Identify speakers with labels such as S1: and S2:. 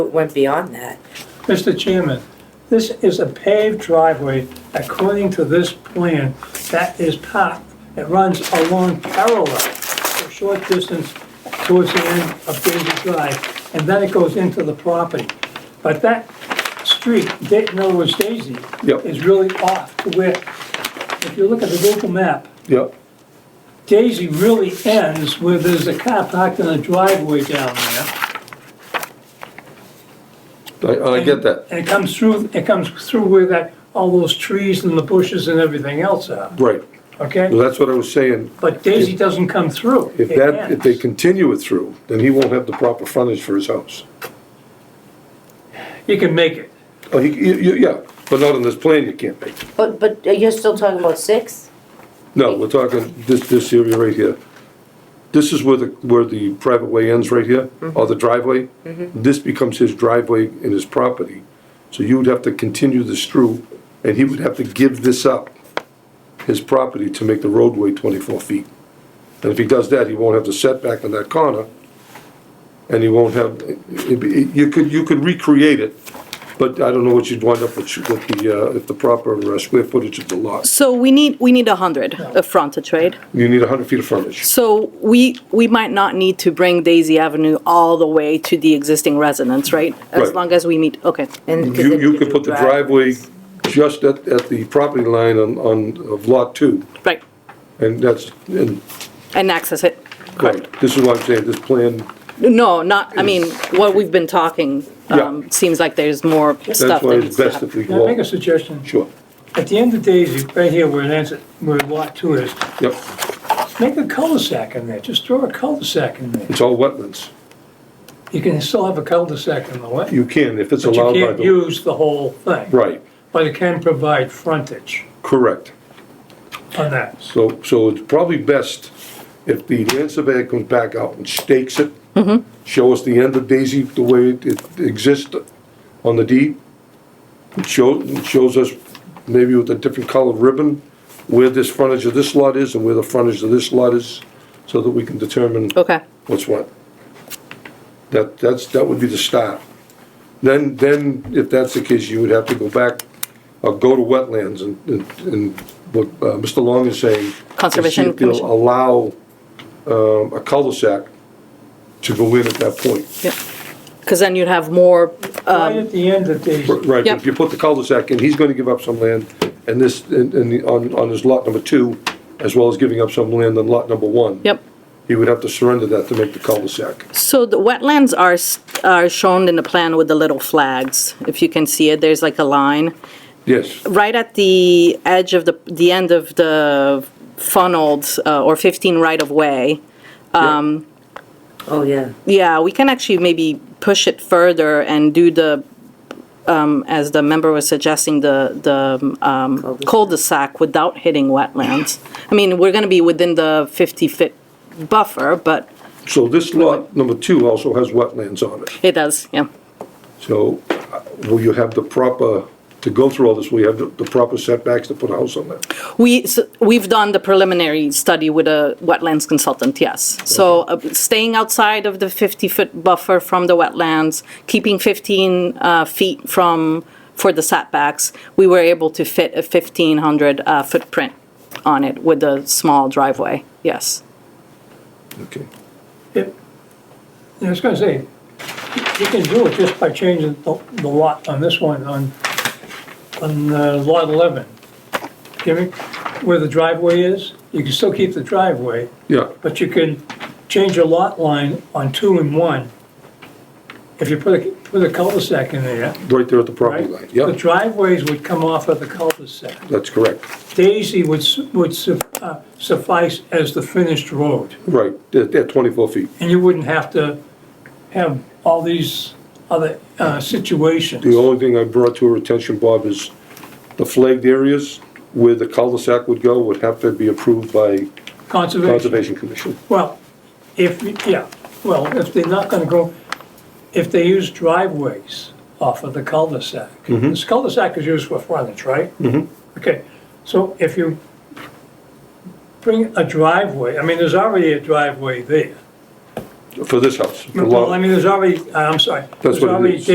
S1: It went beyond that.
S2: Mr. Chairman, this is a paved driveway according to this plan that is part, it runs along parallel a short distance towards the end of Daisy Drive, and then it goes into the property. But that street, Da- in other words, Daisy,
S3: Yep.
S2: is really off to where, if you look at the Google map,
S3: Yep,
S2: Daisy really ends where there's a car parked in a driveway down there.
S3: I, I get that,
S2: And it comes through, it comes through where that, all those trees and the bushes and everything else are,
S3: right. Well,
S2: okay?
S3: that's what I was saying.
S2: But Daisy doesn't come through.
S3: If
S2: It
S3: that, if they
S2: ends.
S3: continue it through, then he won't have the proper frontage for his house.
S2: You can make it.
S3: Oh, he, you, you- yeah, but not on this plan you can't make.
S1: But, but uh, you're still talking about six?
S3: No, we're talking this, this area right here. This is where the, where the private way ends right here, or the driveway. This becomes his driveway and his property. So you would have to continue this through, and he would have to give this up, his property, to make the roadway twenty-four feet. And if he does that, he won't have the setback on that corner, and he won't have, it'd be- you could, you could recreate it, but I don't know what you'd wind up with, with the, uh, if the proper uh, square footage of the lot.
S4: So we need, we need 100 of frontage, right?
S3: You need hundred feet of frontage.
S4: So we, we might not need to bring Daisy Avenue all the way to the existing residence, right? As
S3: Right.
S4: long as we meet, okay.
S1: And
S3: You, you could put the driveway just at, at the property line on, on, of lot two,
S4: Right,
S3: and that's, and,
S4: and access it.
S3: right, this is why I'm saying this plan,
S4: No, not, I mean, what we've been talking, um,
S3: Yeah.
S4: seems like there's more stuff
S3: that's why
S4: that
S3: it's
S4: needs to
S3: best if
S4: happen.
S3: we
S2: Can I make
S3: walk.
S2: a suggestion?
S3: Sure,
S2: At the end of Daisy, right here where it ends, at- where lot two is,
S3: yep,
S2: make a cul-de-sac in there. Just throw a cul-de-sac in there.
S3: it's all wetlands.
S2: You can still have a cul-de-sac in the way.
S3: You can, if it's
S2: But you
S3: allowed by
S2: can't
S3: the,
S2: use the whole thing.
S3: right,
S2: But it can provide frontage
S3: correct.
S2: on that.
S3: So, so it's probably best if the land surveyor comes back out and stakes it, show us the end of Daisy, the way it- it exists on the deed. It shows, it shows us maybe with a different colored ribbon where this frontage of this lot is and where the frontage of this lot is, so that we can determine
S4: Okay,
S3: what's what. That, that's, that would be the start. Then, then if that's the case, you would have to go back, or go to wetlands and, and- and what uh, Mr. Long is saying. and see
S4: Conservation
S3: if they'll
S4: Commission.
S3: Allow, um, a cul-de-sac to go in at that point.
S4: yeah. Because then you'd have more, um,
S2: Right at the end of Daisy.
S3: Right,
S4: Yep.
S3: if you put the cul-de-sac in, he's gonna give up some land, and this, and, and the- on, on his lot number two, as well as giving up some land on lot number one.
S4: yep.
S3: He would have to surrender that to make the cul-de-sac.
S4: So the wetlands are, s- are shown in the plan with the little flags. If you can see it, there's like a line.
S3: Yes,
S4: right at the edge of the, the end of the funneled uh, or 15 right of way,
S1: Oh, yeah.
S4: yeah, we can actually maybe push it further and do the, um, as the member was suggesting, the, the um,
S1: Cul-de-sac.
S4: cul-de-sac without hitting wetlands. I mean, we're gonna be within the 50-foot buffer, but
S3: so this lot number two also has wetlands on it.
S4: it does, yeah.
S3: So uh, will you have the proper, to go through all this, will you have the the proper setbacks to put a house on that?
S4: We, s- we've done the preliminary study with a wetlands consultant, yes. So uh, staying outside of the 50-foot buffer from the wetlands, keeping 15 uh, feet from, for the setbacks, we were able to fit a 1,500 uh, footprint on it with a small driveway, yes.
S3: Okay.
S2: It- I was gonna say, you can do it just by changing the the lot on this one, on, on uh, lot 11. Jimmy, where the driveway is, you can still keep the driveway,
S3: Yeah,
S2: but you can change your lot line on two and one. If you put a, put a cul-de-sac in there,
S3: right there at the property
S2: right?
S3: line.
S2: The
S3: Yeah,
S2: driveways would come off of the cul-de-sac.
S3: that's correct.
S2: Daisy would, su- would su- uh, suffice as the finished road.
S3: Right, at at 24 feet.
S2: and you wouldn't have to have all these other uh, situations.
S3: The only thing I brought to her attention, Bob, is the flagged areas where the cul-de-sac would go would have to be approved by
S2: Conservation,
S3: Conservation Commission.
S2: well, if, you- yeah, well, if they're not gonna go, if they use driveways off of the cul-de-sac.
S3: Mm-hmm.
S2: This cul-de-sac is used for frontage, right? Mm-hmm. Okay, so if you bring a driveway, I mean, there's already a driveway there.
S3: For this house. for lot-
S2: Well, I mean, there's already, I'm sorry, there's
S3: what it
S2: already
S3: is.